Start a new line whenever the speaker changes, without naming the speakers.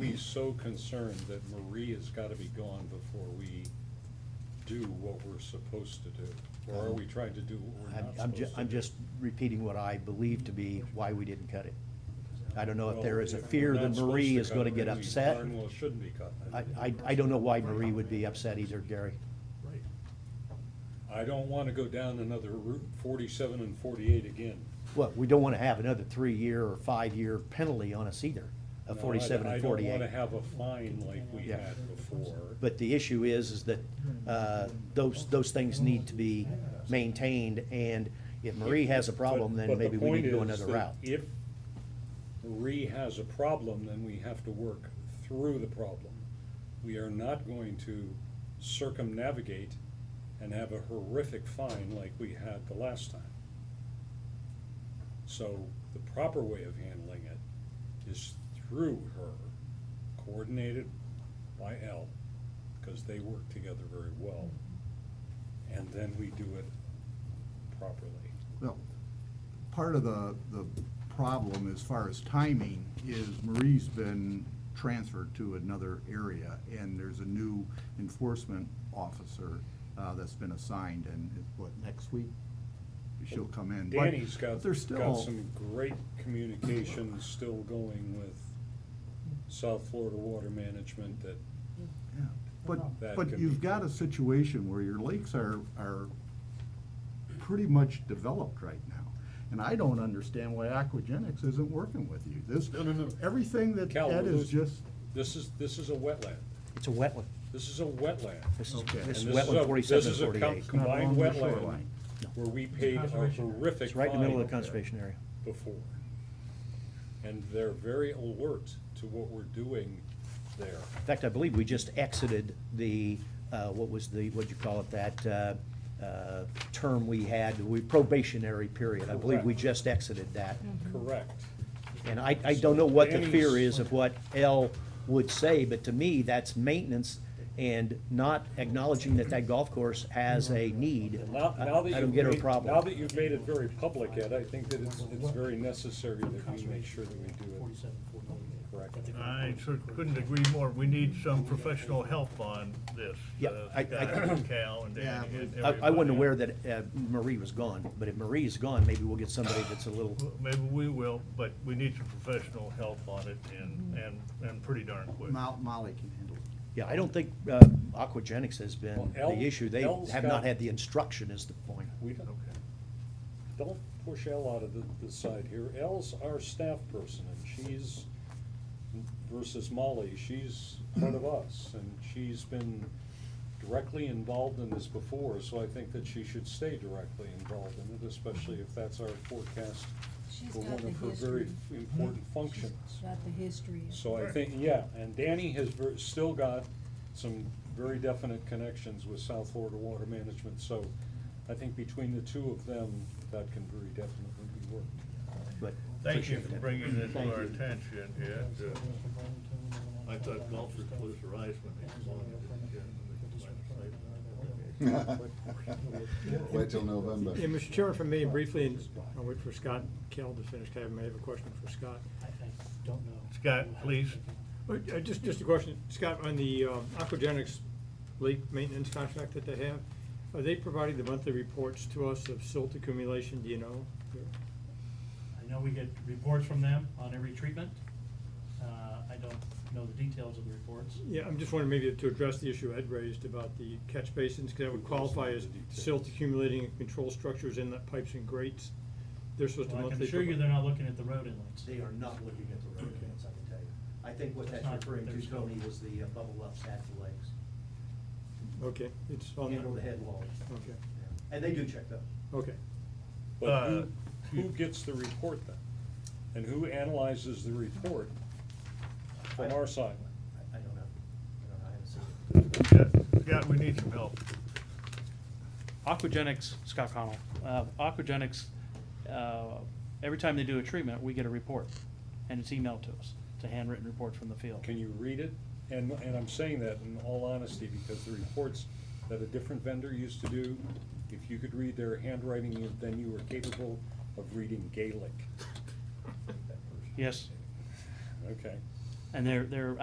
we so concerned that Marie has gotta be gone before we do what we're supposed to do? Or are we trying to do what we're
I'm,
not
I'm ju-
supposed to
I'm
do?
just repeating what I believe to be why we didn't cut it. I don't know if there is a
Well, if
fear
we're
that
not supposed
Marie is
cut
gonna
it,
get
then we
upset.
darn well shouldn't be cut.
I, I, I don't know why Marie would be upset either, Gary.
Right.
I don't wanna go down another Route forty-seven and forty-eight again.
Well, we don't wanna have another three-year or five-year penalty on us either,
No,
of
I-
forty-seven and forty-eight.
I don't wanna have a fine like we
Yeah.
had before.
But the issue is, is that uh, those, those things need to be maintained, and if Marie has a problem,
But-
then
but the
maybe we need to go
point is
another
that
route.
If Marie has a problem, then we have to work through the problem. We are not going to circumnavigate and have a horrific fine like we had the last time. So the proper way of handling it is through her, coordinated by L, because they work together very well. And then we do it properly.
Well, part of the, the problem as far as timing is Marie's been transferred to another area, and there's a new enforcement officer uh, that's been assigned, and it- what, next week? She'll come in. But-
Danny's got,
but there's
got
still-
some great communication still going with South Florida Water Management that,
Yeah,
That
But, but
can
you've
be
got a
fixed.
situation where your lakes are, are pretty much developed right now. And I don't understand why Aquagenics isn't working with you. This,
No, no, no.
everything that
Cal,
Ed
we're
is
losing-
just,
this is, this is a wetland.
It's a wetland.
This is a wetland.
This is,
Okay.
And
this is
this is a-
wetland forty-seven and
This is a
forty-eight.
com-
Not
combined
along the
wetland
shoreline.
where we paid a horrific
It's right in the middle of the
fine
conservation area.
before. And they're very alert to what we're doing there.
In fact, I believe we just exited the, uh, what was the, what'd you call it, that uh, uh, term we had, we probationary period. I believe we
Correct.
just exited that.
Mm-hmm. Correct.
And I, I don't know what the fear
Danny's-
is of what L would say, but to me, that's maintenance and not acknowledging that that golf course has a need.
Mm-hmm. Now,
I
now that
I
you've
don't get her
made-
problem.
Now that you've made it very public, Ed, I think that it's, it's very necessary that we make sure that we do it correctly.
I sure couldn't agree more. We need some professional help on this.
Yeah,
uh,
I- I-
Scott, Cal and
Yeah.
Danny and
I, I wasn't
everybody.
aware that uh, Marie was gone, but if Marie is gone, maybe we'll get somebody that's a little,
Well, Maybe we will, but we need some professional help on it and, and, and pretty darn quick.
Mo- Molly can handle it.
yeah, I don't think uh, Aquagenics has been
Well, L-
the issue. They
L's
have not
got-
had the instruction is the point.
We don't, don't push Elle out of the, the side here. Elle's our staff person and she's, versus Molly, she's part of us. And she's been directly involved in this before, so I think that she should stay directly involved in it, especially if that's our forecast
She's
for
got
one
the
of her very
history.
important functions.
Got the history.
So I think, yeah, and Danny has ver- still got some very definite connections with South Florida Water Management, so I think between the two of them, that can very definitely be worked.
But
Thank you
appreciate
for
that.
bringing it to our attention, Ed. Uh, I thought golfers close their eyes when they belong to the
Wait till November.
Yeah, Mr. Chairman, for me, briefly, and I'll wait for Scott Kell to finish, I may have a question for Scott.
don't know.
Scott, please.
Uh, uh, Just, just a question, Scott, on the um, aquagenics lake maintenance contract that they have, are they providing the monthly reports to us of silt accumulation, do you know?
I know we get reports from them on every treatment. Uh, I don't know the details of the reports.
Yeah, I'm just wondering maybe to address the issue Ed raised about the catch basins, because that would qualify as silt accumulating in control structures, inlet pipes and grates. They're supposed to
Well, I can
monthly.
assure you
provide-
they're not looking at the road inlets.
They are not looking at the road plans, I can tell you. I think what
That's
that's
not
referring
their
to,
scope.
Tony, was the uh, bubble ups at the lakes,
Okay, it's on.
handle the head walls.
Oh, Okay,
And they do check those.
okay.
But who, who gets the report then? And who analyzes the report from our side?
I- I don't know. I don't know, I haven't seen it.
Scott- Scott, we need some help.
Aquagenics, Scott Connell, uh, Aquagenics, uh, every time they do a treatment, we get a report, and it's emailed to us. It's a handwritten report from the field.
Can you read it? And, and I'm saying that in all honesty, because the reports that a different vendor used to do, if you could read their handwriting, you- then you were capable of reading Gaelic.
Yes,
Okay.
and they're, they're